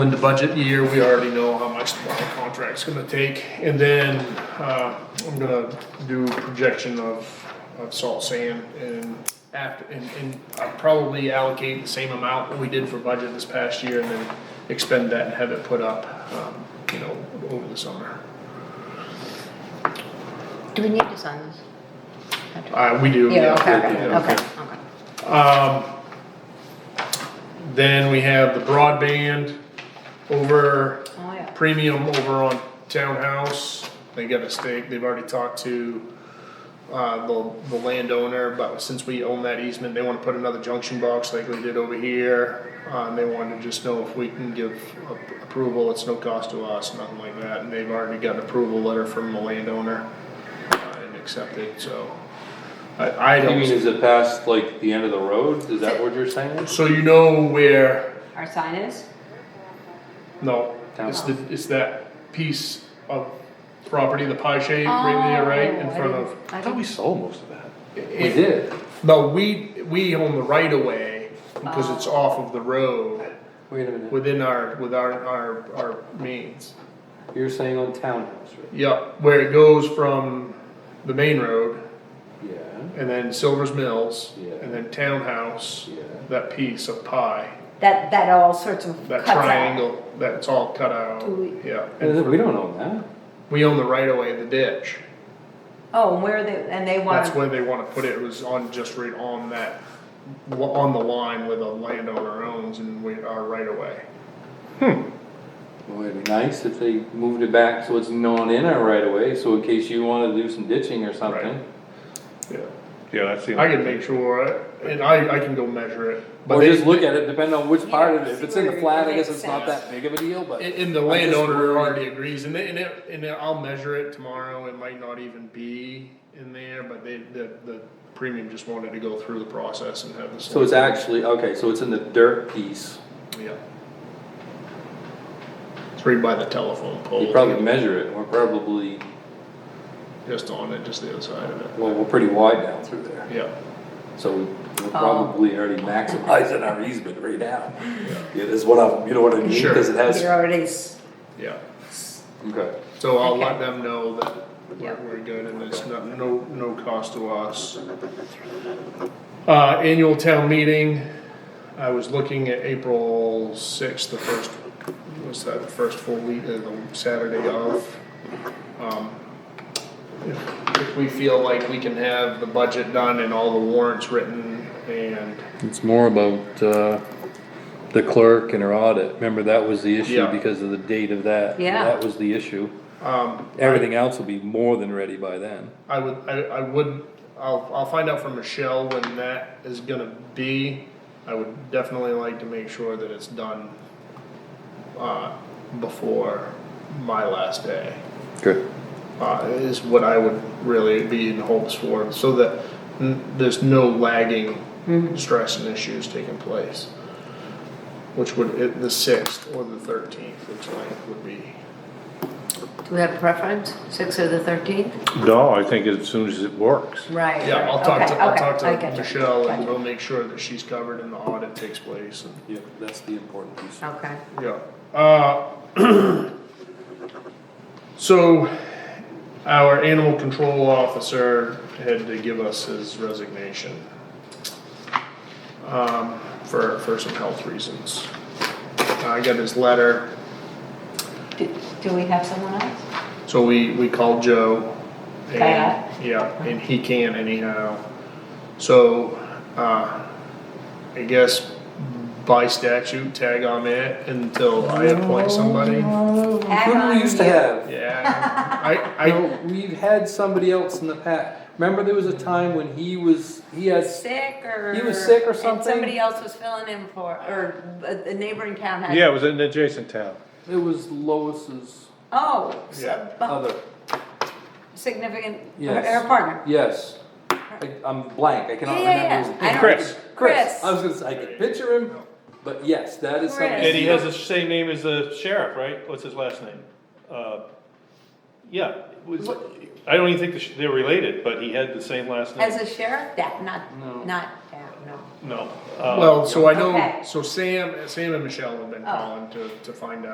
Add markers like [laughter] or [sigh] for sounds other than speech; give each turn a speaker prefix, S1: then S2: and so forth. S1: In the budget year, we already know how much the bond contract's gonna take, and then, uh, I'm gonna do projection of, of salt sand and after, and, and I'll probably allocate the same amount that we did for budget this past year and then expend that and have it put up, um, you know, over the summer.
S2: Do we need to sign this?
S1: Uh, we do.
S2: Yeah, okay, okay,
S1: yeah.
S2: okay, okay.
S1: Then we have the broadband over
S2: Oh, yeah.
S1: premium over on townhouse. They got a stake, they've already talked to, uh, the, the landowner, but since we own that easement, they wanna put another junction box like we did over here. Uh, and they wanted to just know if we can give a- approval, it's no cost to us, nothing like that, and they've already got an approval letter from the landowner. uh, And accepted, so, I, I
S3: You
S1: don't.
S3: mean, is it past like the end of the road? Is that what you're saying?
S1: So you know where
S2: Our sign is?
S1: No,
S3: Down.
S1: it's the, it's that piece of property, the pie shape right there, right in
S2: Oh, I
S1: front
S2: didn't-
S1: of.
S2: I didn't,
S4: sold most of that.
S3: We did.
S1: No, we, we own the right of way because
S2: Ah.
S1: it's off of the road
S3: Wait a minute.
S1: within our, with our, our, our means.
S3: You're saying on townhouse, right?
S1: Yep, where it goes from the main road
S3: Yeah,
S1: and then Silver's Mills
S3: Yeah.
S1: and then Townhouse,
S3: Yeah.
S1: that piece of pie,
S2: that, that all sorts of
S1: that
S2: cuts out.
S1: triangle, that's all cut out,
S2: Ooh.
S1: yeah.
S3: Uh,
S1: And
S3: we don't own that.
S1: we own the right of way, the ditch.
S2: Oh, and where they, and they
S1: That's
S2: want,
S1: where they wanna put it, it was on, just right on that, wa- on the line where the landowner owns and we are right away.
S3: Well, it'd be nice if they moved it back so it's known in our right away. so in case you wanna do some ditching or something.
S1: Yeah.
S4: Yeah, that's the.
S1: I can make sure, I- and I, I can go measure it, but
S3: Or just
S1: they,
S3: look at it, depending on which
S2: You
S3: part of
S2: don't
S3: it. If
S2: see
S3: it's in the
S2: where it
S3: flat, I
S2: makes
S3: guess it's not
S2: sense.
S3: that big of a deal, but.
S1: and, and the
S3: I'm just
S1: landowner
S3: worried.
S1: already agrees, and they, and it, and it- I'll measure it tomorrow, it might not even be in there, but they, the, the premium just wanted to go through the process and have this.
S3: So it's actually, okay, so it's in the dirt piece.
S1: Yeah. It's right by the telephone pole.
S3: You probably measure it, and we're probably,
S1: Just on it, just the other side of it,
S3: well, we're pretty wide down through there.
S1: yeah.
S3: So
S2: Oh.
S3: we're probably already maximizing our easement right now. Yeah, that's what I'm, you know what I mean,
S1: Sure.
S3: because it has.
S2: you're already, s-
S1: Yeah,
S3: Okay.
S1: so I'll let
S2: Okay.
S1: them know that
S2: Yeah.
S1: we're, we're good and it's not, no, no cost to us. Uh, annual town meeting, I was looking at April sixth, the first, was that the first full week, uh, the Saturday of? Um, If if we feel like we can have the budget done and all the warrants written and,
S5: It's more about, uh, the clerk and her audit, remember that was the issue
S1: Yeah.
S5: because of the date of that?
S2: Yeah.
S5: That was the issue,
S1: um,
S5: everything else will be more than ready by then.
S1: I would, I, I would, I'll, I'll find out from Michelle when that is gonna be. I would definitely like to make sure that it's done, uh, before my last day,
S5: Good.
S1: uh, is what I would really be in hopes for, so that n- there's no lagging stress and issues taking place. Which would, it- the sixth or the thirteenth, which like would be,
S2: do we have a preference, six or the thirteenth?
S4: No, I think as soon as it works.
S2: Right.
S1: yeah, I'll talk to,
S2: okay,
S1: I'll
S2: okay,
S1: talk
S2: I
S1: to
S2: get you,
S1: Michelle and
S2: gotcha.
S1: we'll make sure that she's covered and the audit takes place and.
S3: Yeah, that's the important piece.
S2: Okay,
S1: Yeah, uh, [clears throat] so our animal control officer had to give us his resignation. Um, for, for some health reasons. I got his letter,
S2: do, do we have someone else?
S1: so we, we called Joe. and-
S2: Pat. Uh-huh.
S1: Yeah, and he can anyhow. So, uh, I guess by statute, tag on it until I appoint somebody.
S2: Add
S3: Who do
S2: on
S3: we used to
S2: you.
S3: have?
S2: [laughs]
S1: Yeah, I, I,
S3: No, We've had somebody else in the past. Remember there was a time when he was, he had,
S2: Sick or?
S3: He was sick or
S2: and
S3: something?
S2: somebody else was filling in for, or a a neighboring town had.
S4: Yeah, it was in the adjacent town.
S3: it was Lois's
S2: Oh, so-
S1: Yeah.
S2: but
S3: other,
S2: significant,
S3: Yes.
S2: or partner.
S3: yes. I- I'm blank, I cannot
S2: Yeah, yeah, yeah.
S3: remember his
S2: I
S3: name.
S2: don't-
S4: Chris.
S2: Chris.
S3: I was gonna say, I could picture him, but yes, that is somebody.
S2: Chris.
S6: And he has the same name as the sheriff, right? What's his last name? Uh, Yeah, it was- I don't even think the sh- they're related, but he had the same last name.
S2: As a sheriff, that, not, not town. no.
S6: no. uh,
S1: Well, so I know,
S2: Okay.
S1: so Sam, Sam and Michelle have been
S2: Oh.
S1: calling to, to find out.